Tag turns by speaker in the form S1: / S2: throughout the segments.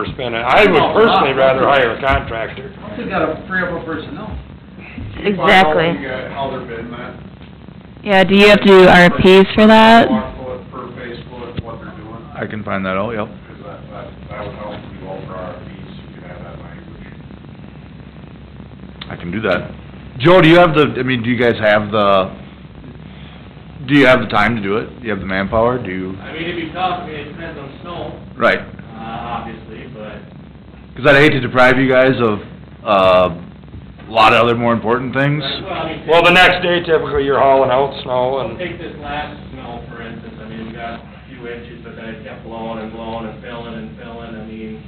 S1: we're spending. I would personally rather hire a contractor.
S2: We gotta free up our personnel.
S3: Exactly.
S4: You got uh, how they're bidding that.
S5: Yeah, do you have to do RFPs for that?
S4: Watt foot per face foot, what they're doing,
S6: I can find that out, yep.
S4: because that, that, that would help you all for RFPs, you could have that language.
S6: I can do that. Joe, do you have the, I mean, do you guys have the, do you have the time to do it? Do you have the manpower? Do you,
S7: I mean, it'd be tough, I mean, it depends on snow,
S6: right?
S7: uh, obviously, but,
S6: Because I'd hate to deprive you guys of, uh, a lot of other more important things.
S7: right, well, I mean.
S1: Well, the next day typically you're hauling out snow
S7: Well,
S1: and,
S7: take this last snow, for instance, I mean, we got a few inches, but then it kept blowing and blowing and filling and filling, I mean,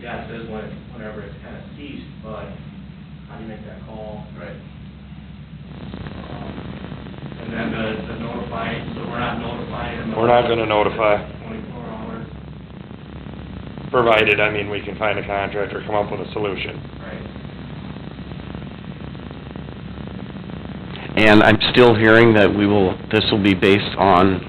S7: yeah, it says when, it- whenever it's kind of ceased, but how do you make that call?
S4: Right.
S7: Um, And then the, the notifying, so we're not notifying them.
S1: We're not gonna notify.
S7: Twenty-four hours,
S1: provided, I mean, we can find a contractor, come up with a solution.
S7: right?
S8: And I'm still hearing that we will, this will be based on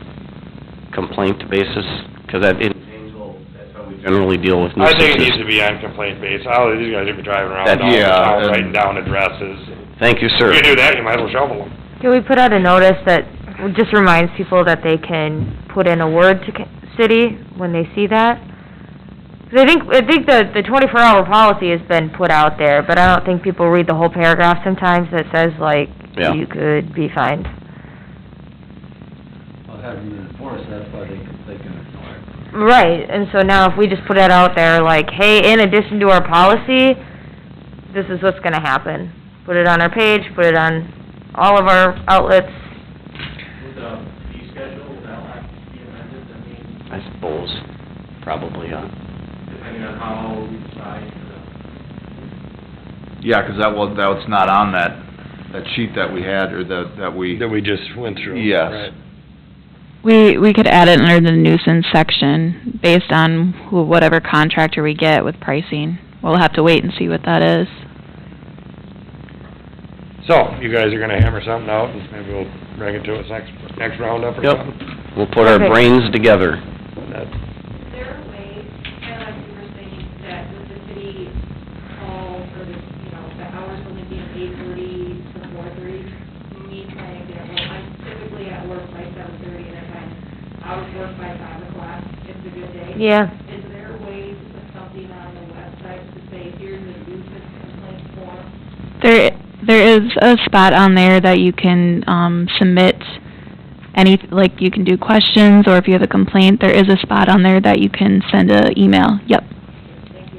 S8: complaint basis, because that, in Janesville, that's how we generally deal with
S1: I think it
S8: nuisances.
S1: needs to be on complaint base. All of these guys would be driving around
S8: That-
S1: all the
S6: yeah,
S1: town,
S6: and-
S1: writing down addresses.
S8: Thank you, sir.
S1: If you do that, you might as well shovel them.
S3: Do we put out a notice that just reminds people that they can put in a word to ca- city when they see that? 'Cause I think, I think the, the twenty-four hour policy has been put out there, but I don't think people read the whole paragraph sometimes that says like,
S8: Yeah.
S3: you could be fined.
S2: Well, having them enforced, that's why they, can- they can ignore it.
S3: Right, and so now if we just put that out there, like, hey, in addition to our policy, this is what's gonna happen. Put it on our page, put it on all of our outlets.
S7: With the fee schedule, will that have to be amended, I mean,
S8: I suppose, probably, huh?
S7: depending on how we decide to
S6: Yeah, 'cause that was, that was not on that, that sheet that we had, or that, that we,
S1: That we just went through.
S6: Yes.
S1: Right.
S5: We, we could add it under the nuisance section based on who, whatever contractor we get with pricing. We'll have to wait and see what that is.
S1: So, you guys are gonna hammer something out, and maybe we'll bring it to us next, next roundup or
S8: Yep.
S1: something?
S8: We'll put our
S3: Okay.
S8: brains together.
S1: That-
S9: Is there a way, kind of like you were saying, that with the city hall, or the, you know, the hours only being eight thirty to four thirty, me trying to get home, I'm typically at work by seven thirty, and if I'm out of work by five o'clock, it's a good day.
S3: Yeah.
S9: Is there a way to put something on the website to say, here's a nuisance complaint form?
S5: There, there is a spot on there that you can, um, submit any, like, you can do questions, or if you have a complaint, there is a spot on there that you can send a email, yep.